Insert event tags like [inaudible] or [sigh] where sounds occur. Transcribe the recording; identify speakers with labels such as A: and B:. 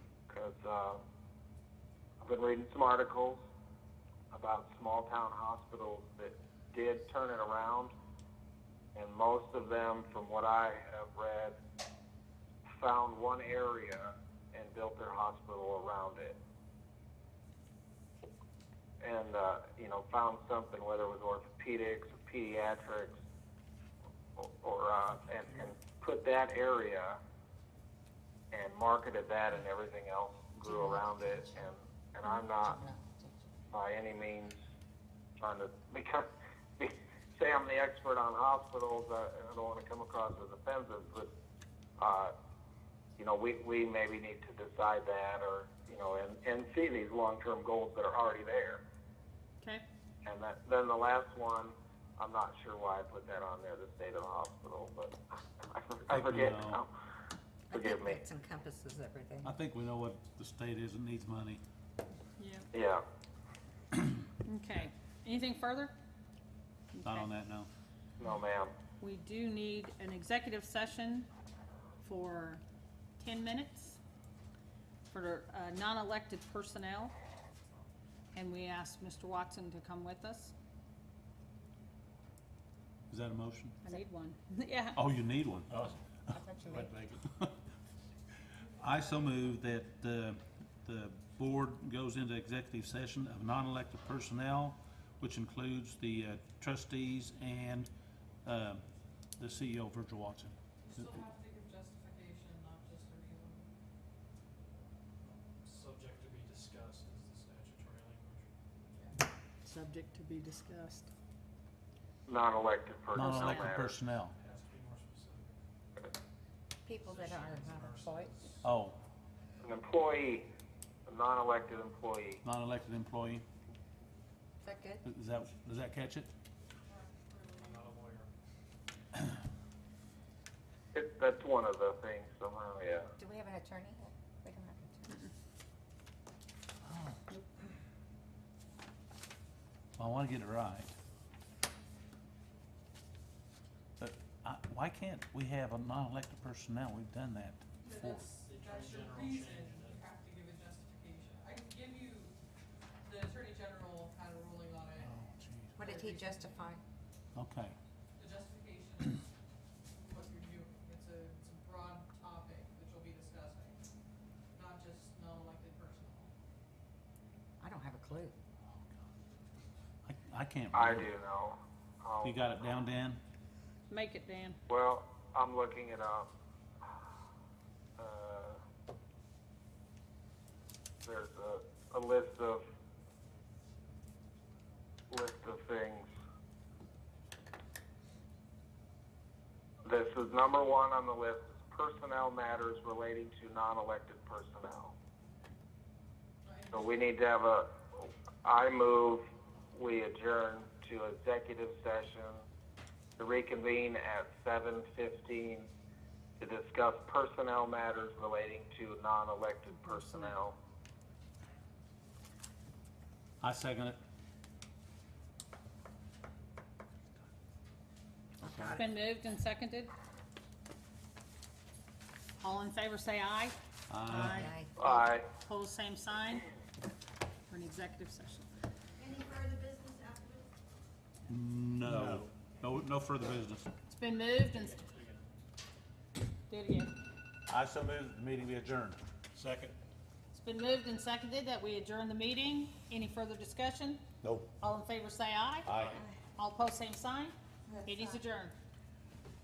A: but uh, I've been reading some articles about small town hospitals that did turn it around, and most of them, from what I have read, found one area and built their hospital around it. And, uh, you know, found something, whether it was orthopedics or pediatrics, or, or uh, and, and put that area and marketed that, and everything else grew around it. And, and I'm not by any means trying to become be, say I'm the expert on hospitals. I, I don't want to come across as offensive, but uh, you know, we we maybe need to decide that, or you know, and and see these long-term goals that are already there.
B: Okay.
A: And that, then the last one, I'm not sure why I put that on there, the state of the hospital, but [laughs] I, I forget
C: No.
A: now.
D: I
A: Forgive
D: think
A: me.
D: that encompasses everything.
C: I think we know what the state is that needs money.
B: Yeah.
A: Yeah.
B: Okay. Anything further?
C: Not
B: Okay.
C: on that, no.
A: No, ma'am.
B: We do need an executive session for ten minutes for uh, non-elected personnel. And we asked Mr. Watson to come with us.
C: Is that a motion?
B: I need [laughs] one. Yeah.
C: Oh, you need one.
E: Oh,
D: I thought you
E: wait,
D: meant-
E: make it.
C: [laughs] I so move that the, the board goes into executive session of non-elected personnel, which includes the uh, trustees and, um, the CEO of Virgil Watson.
F: You still have to give justification, not just a reason.
E: Subject to be discussed is the statutory language.
B: Subject to be discussed.
A: Non-elected personnel.
C: Non-elected
A: matters.
C: personnel.
E: It has to be more specific.
D: People that are
E: Physicians,
D: not employed.
E: nurses.
C: Oh,
A: An employee, a non-elected employee.
C: non-elected employee.
D: Is that good?
C: Is that, does that catch it?
E: I'm not a lawyer.
A: It, that's one of the things somehow, yeah.
D: Do we have an attorney? yet? We don't have an attorney.
C: I want to get it right. But I, why can't we have a non-elected personnel? We've done that
F: But
C: before.
F: that's,
E: The
F: that's your
E: Attorney
F: reason,
E: General changed
F: you
E: it.
F: have to give a justification. I can give you, the Attorney General had a ruling on
C: Oh,
F: it.
C: jeez.
D: What did he justify?
C: Okay,
F: The justification is what you're doing. It's a, it's a broad topic that you'll be discussing, not just non-elected personnel.
D: I don't have a clue.
C: I, I can't.
A: I do
C: remember.
A: know. Um,
C: You got it down, Dan?
B: Make it, Dan.
A: Well, I'm looking it up. Uh, there's a, a list of list of things. This is number one on the list: personnel matters relating to non-elected personnel. So we need to have a. I move we adjourn to executive session to reconvene at seven fifteen to discuss personnel matters relating to non-elected personnel.
C: I second it.
B: It's been moved and seconded. All in favor, say aye.
C: Aye.
D: I-
A: Aye.
B: Pose same sign for an executive session.
G: Any further business after this?
C: No, no, no further business.
B: It's been moved and. Do it again.
C: I so move the meeting be adjourned.
E: Second.
B: It's been moved and seconded that we adjourn the meeting. Any further discussion?
C: No.
B: All in favor, say aye.
C: Aye.
B: All opposed, same sign. It is adjourned.